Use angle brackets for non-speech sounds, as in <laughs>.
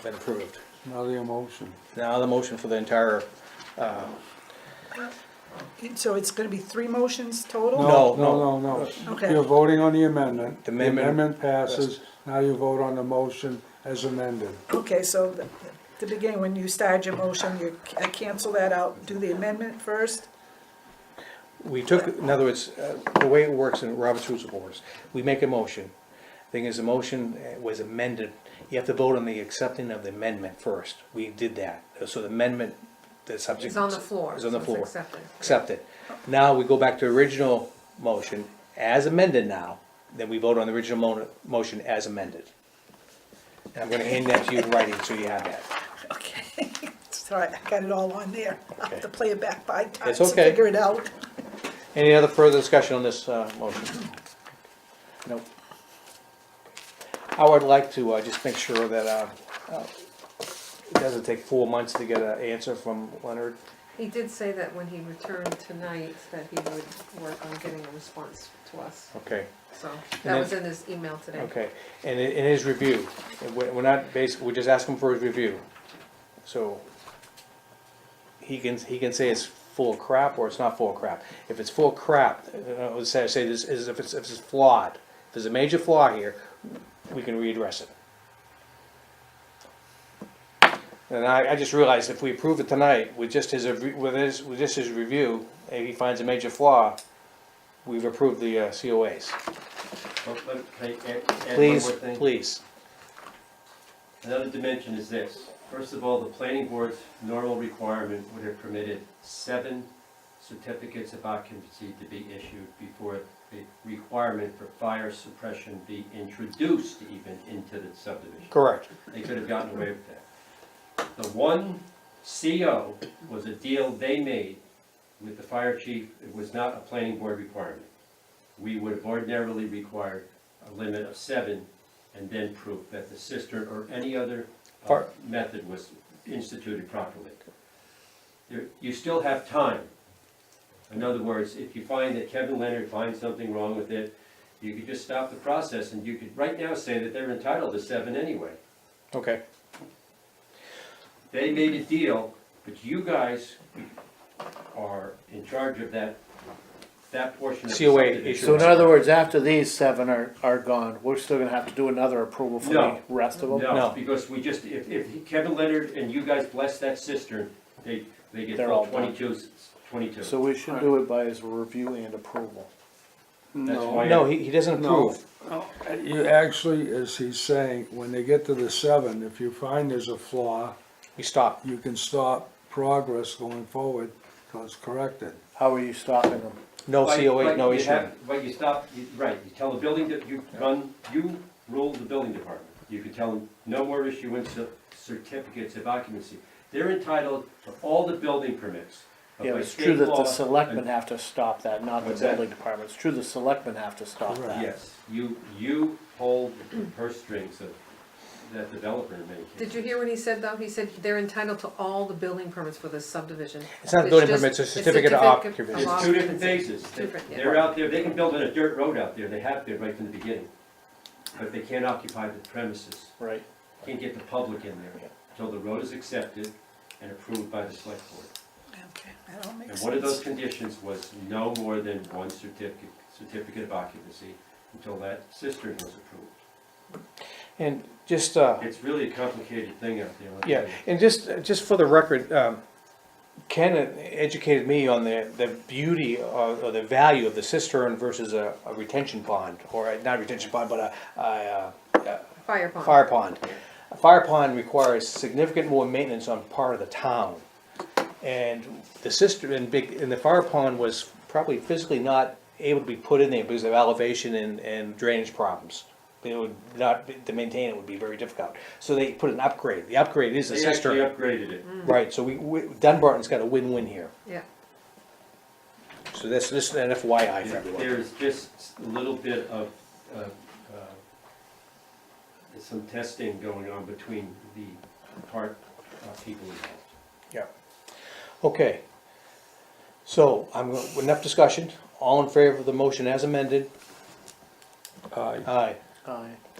been approved. Now the emotion. Now the motion for the entire, uh, So it's gonna be three motions total? No, No, no, no. Okay. You're voting on the amendment. The amendment- Amendment passes, now you vote on the motion as amended. Okay, so the- the beginning, when you start your motion, you ca- cancel that out, do the amendment first? we took, in other words, uh, the way it works in Robert's Rules of Orders, we make a motion. Thing is, the motion uh, was amended, you have to vote on the accepting of the amendment first. We did that, so the amendment, the subject. It's on the floor. Is on the so floor. It's accepted. Accepted. Now we go back to original motion as amended now, then we vote on the original mo- motion as amended. And I'm gonna hand that to you in writing, so you have that. <laughs> <laughs> Okay, sorry, I got it all on there. I'll have Okay. to play it back five times to okay. figure it out. Any other further discussion on this uh, motion? Nope. I would like to uh, just make sure that uh, uh, it doesn't take four months to get an answer from Leonard. He did say that when he returned tonight, that he would work on getting a response to us, Okay. so then- that was in his email today. Okay, and i- in his review, we're we're not basically, we're just asking for his review. So he can, he can say it's full of crap or it's not full of crap. If it's full of crap, uh, let's say, say this is, if it's, if it's flawed, if there's a major flaw here, we can readdress it. And I, I just realized if we approve it tonight with just his, review- with his, with just his review, and he finds a major flaw, we've approved the uh, COAs. Well, but can I add- add one more Please, thing? please. Another dimension is this. First of all, the planning board's normal requirement would have permitted seven certificates of occupancy to be issued before the requirement for fire suppression be introduced even into the subdivision. Correct. They could have gotten away with that. The one CO was a deal they made with the fire chief. It was not a planning board requirement. We would have ordinarily required a limit of seven and then proof that the cistern or any other uh, Fire- method was instituted properly. There- You still have time. In other words, if you find that Kevin Leonard finds something wrong with it, you could just stop the process and you could right now say that they're entitled to seven anyway. Okay. They made a deal, but you guys are in charge of that, that portion of the COA subdivision. issue. So in other words, after these seven are, are gone, we're still gonna have to do another approval for the No. rest of them? No. No, because we just, if, if Kevin Leonard and you guys bless that cistern, they, they get They're full all done. 22 22. So we should do it by his review and approval. That's why I- No, he, he doesn't approve. You actually, as he's saying, when they get to the seven, if you find there's a flaw, He stopped. you can stop progress going forward till it's corrected. How are you stopping them? No But- COA, but no you issue. have- But you stop, you- right, you tell the building, that you run, you rule the building department. You can tell them, no more issuance of certificates of occupancy. They're entitled to all the building permits. but Yeah, by it's true state that law- the selectmen have to stop that, not the What's that? building department. It's true the selectmen have to stop Correct. that. Yes, you, you hold the purse strings of that developer in many Did cases. you hear what he said, though? He said they're entitled to all the building permits for this subdivision. It's not building just- permits, it's it's certificate of certificate of occupancy. It's two different phases. Two different, yeah. They're out there, they can build on a dirt road out there, they have been right from the beginning. But they can't occupy the premises, Right. can't get the public in there until the road is accepted and approved by the select board. Okay, that all And makes one of those sense. conditions was no more than one certificate, certificate of occupancy until that cistern was approved. And just, uh, It's really a complicated thing out there. I'll yeah, tell you. and just, just for the record, um, Ken educated me on the, the beauty of, or the value of the cistern versus a, a retention pond, or a- not retention pond, but a, a, uh, Fire pond. Fire pond. A fire pond requires significant more maintenance on part of the town. And the cistern and big, and the fire pond was probably physically not able to be put in there because of elevation and, and drainage problems. It would not, be- to maintain it would be very difficult. So they put an upgrade. The upgrade is a They cistern. actually upgraded Mm. it. Right, so we- we, Dunbarton's got a win-win here. Yeah, So this, this is an FYI for everyone. There's just a little bit of, uh, uh, some testing going on between the part uh, people involved. Yeah. Okay. So I'm, gonna- enough discussion. All in favor of the motion as amended? Aye. Aye. Aye.